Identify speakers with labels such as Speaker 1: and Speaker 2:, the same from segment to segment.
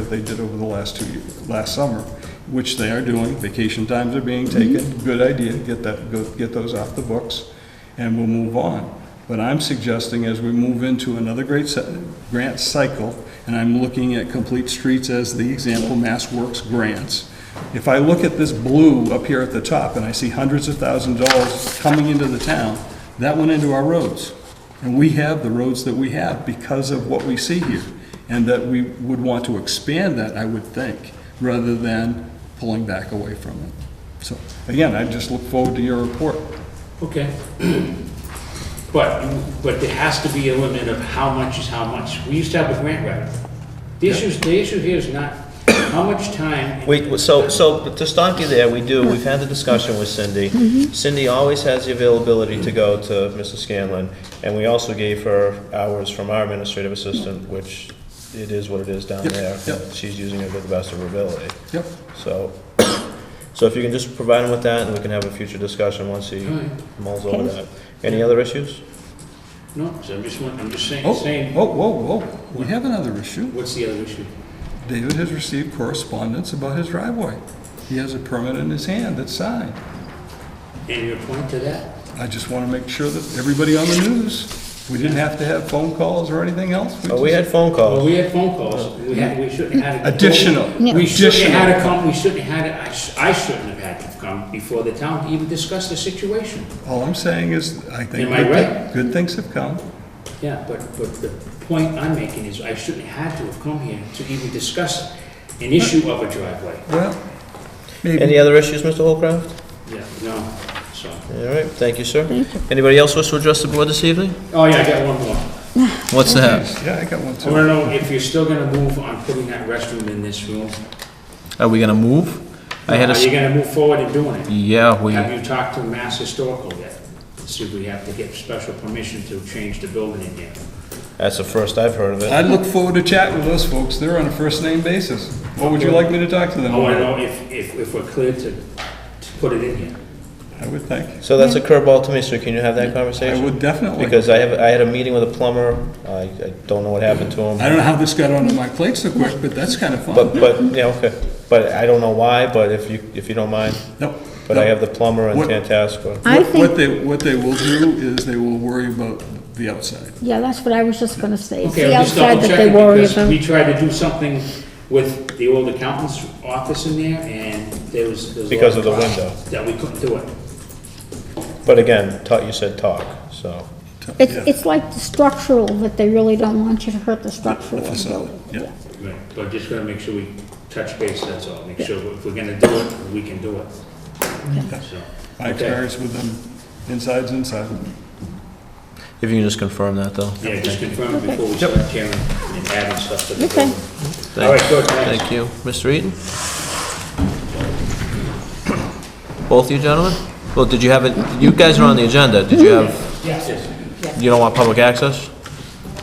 Speaker 1: they did over the last two, year- last summer, which they are doing, vacation times are being taken, good idea, get that, go, get those off the books, and we'll move on. But I'm suggesting as we move into another great se- grant cycle, and I'm looking at Complete Streets as the example, Mass Works grants, if I look at this blue up here at the top, and I see hundreds of thousands of dollars coming into the town, that went into our roads. And we have the roads that we have because of what we see here, and that we would want to expand that, I would think, rather than pulling back away from it. So, again, I just look forward to your report.
Speaker 2: Okay. But, but there has to be a limit of how much is how much. We used to have a grant writer. The issue, is- the issue here is not how much time.
Speaker 3: We, so, so to stop you there, we do, we've had the discussion with Cindy. Cindy always has the availability to go to Mrs. Scanlon, and we also gave her hours from our administrative assistant, which it is what it is down
Speaker 1: Yep,
Speaker 3: there.
Speaker 1: yep.
Speaker 3: She's using it to the best of her ability.
Speaker 1: Yep.
Speaker 3: So, so if you can just provide him with that, and we can have a future discussion once he
Speaker 2: All right.
Speaker 3: mulls over that. Any other issues?
Speaker 2: No, so I'm just, want- I'm just saying,
Speaker 1: Oh,
Speaker 2: saying,
Speaker 1: whoa, whoa, whoa, we have another issue.
Speaker 2: what's the other issue?
Speaker 1: David has received correspondence about his driveway. He has a permit in his hand that's signed.
Speaker 2: And your point to that?
Speaker 1: I just want to make sure that everybody on the news, we didn't have to have phone calls or anything else.
Speaker 3: Oh, we
Speaker 1: just-
Speaker 3: had phone
Speaker 2: Well,
Speaker 3: calls.
Speaker 2: we had phone calls. We had, we shouldn't have had. it.
Speaker 1: Additional,
Speaker 2: We shouldn't have had
Speaker 1: additional.
Speaker 2: to come, we shouldn't have had, it- I sh- I shouldn't have had to come before the town to even discuss the situation.
Speaker 1: All I'm saying is, I think
Speaker 2: Am I
Speaker 1: good thi-
Speaker 2: right?
Speaker 1: good things have come.
Speaker 2: Yeah, but, but the point I'm making is I shouldn't have had to have come here to even discuss an issue of a driveway.
Speaker 1: Well,
Speaker 3: Any
Speaker 1: maybe.
Speaker 3: other issues, Mr. Holcraft?
Speaker 2: Yeah, no, so.
Speaker 3: All right, thank you, sir. Anybody else wish to address the board this evening?
Speaker 2: Oh, yeah, I got one more.
Speaker 3: What's that?
Speaker 1: Yeah, I got one
Speaker 2: I
Speaker 1: too.
Speaker 2: wanna know if you're still gonna move on putting that restroom in this room?
Speaker 3: Are we gonna move? I had a,
Speaker 2: Are
Speaker 3: s-
Speaker 2: you gonna move forward in doing it?
Speaker 3: yeah, we,
Speaker 2: Have you talked to Mass Historical yet? See if we have to get special permission to change the building in there.
Speaker 3: that's the first I've heard of it.
Speaker 1: I look forward to chat with those folks. They're on a first-name basis. What would you like me to talk to them
Speaker 2: Oh, I wanna
Speaker 1: about?
Speaker 2: know if, if, if we're clear to, to put it in here.
Speaker 1: I would think.
Speaker 3: So that's a curveball to me, sir, can you have that
Speaker 1: I
Speaker 3: conversation?
Speaker 1: would definitely.
Speaker 3: Because I have, I had a meeting with a plumber, I, I don't know what happened to
Speaker 1: I
Speaker 3: him,
Speaker 1: don't know how this got onto my plate so quick, but that's kind of
Speaker 3: but,
Speaker 1: fun.
Speaker 3: but, yeah, okay. But I don't know why, but if you, if you don't mind,
Speaker 1: No,
Speaker 3: but I
Speaker 1: no.
Speaker 3: have the plumber and
Speaker 1: What-
Speaker 3: Tantascwa.
Speaker 4: I
Speaker 1: What what
Speaker 4: think,
Speaker 1: they, what they will do is they will worry about the outside.
Speaker 4: yeah, that's what I was just gonna say. It's
Speaker 2: Okay,
Speaker 4: the
Speaker 2: I'm just
Speaker 4: outside
Speaker 2: double
Speaker 4: that they
Speaker 2: checking
Speaker 4: worry
Speaker 2: because
Speaker 4: about.
Speaker 2: we tried to do something with the old accountant's office in there and there was. there was a lot
Speaker 3: Because of the
Speaker 2: cost
Speaker 3: window.
Speaker 2: That we couldn't do it.
Speaker 3: But again, talk, you said talk, so.
Speaker 4: It's, it's like the structural, that they really don't want you to hurt the structural. of the
Speaker 1: facade,
Speaker 4: building.
Speaker 1: yeah.
Speaker 2: Right, but just gotta make sure we touch base, that's all, make sure if we're gonna do it, we can do it. So,
Speaker 1: My
Speaker 2: okay.
Speaker 1: experience with them, inside's inside.
Speaker 3: If you can just confirm that, though.
Speaker 2: Yeah, just confirm it before we start tearing and adding stuff to the
Speaker 4: Okay.
Speaker 2: building. All right, good, thanks.
Speaker 3: Thank you. Mr. Eaton? Both you gentlemen? Well, did you have, it? you guys are on the agenda, did you have,
Speaker 2: Yes, yes.
Speaker 3: you don't want public access?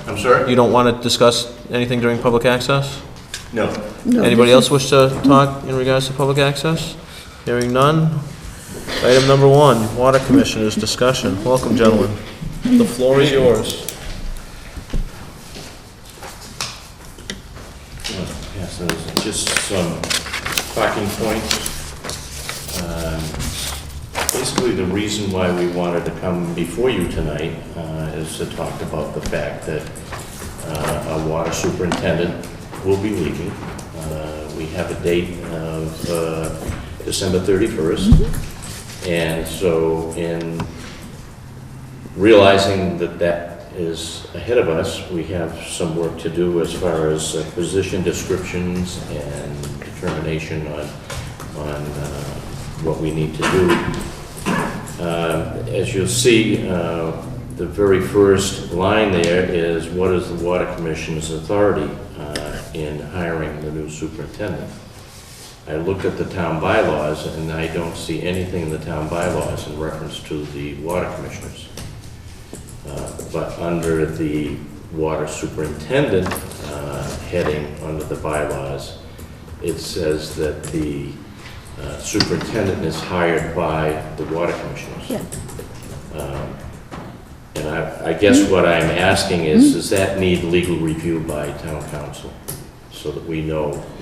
Speaker 2: I'm sorry?
Speaker 3: You don't want to discuss anything during public access?
Speaker 5: No.
Speaker 3: Anybody else wish to talk in regards to public access? Hearing none. Item number one, Water Commissioners discussion. Welcome, gentlemen. The floor is yours.
Speaker 5: Yeah, so it's just some talking points. Um, Basically, the reason why we wanted to come before you tonight uh, is to talk about the fact that uh, our water superintendent will be leaving. Uh, We have a date of uh, December 31st. And so in realizing that that is ahead of us, we have some work to do as far as uh, position descriptions and determination on, on uh, what we need to do. Uh, As you'll see, uh, the very first line there is, what is the Water Commission's authority uh, in hiring the new superintendent? I looked at the town bylaws, and I don't see anything in the town bylaws in reference to the water commissioners. Uh, But under the water superintendent uh, heading under the bylaws, it says that the uh, superintendent is hired by the water commissioners. Um,
Speaker 4: Yeah.
Speaker 5: And I, I guess what I'm asking is, does that need legal review by town council? So that we know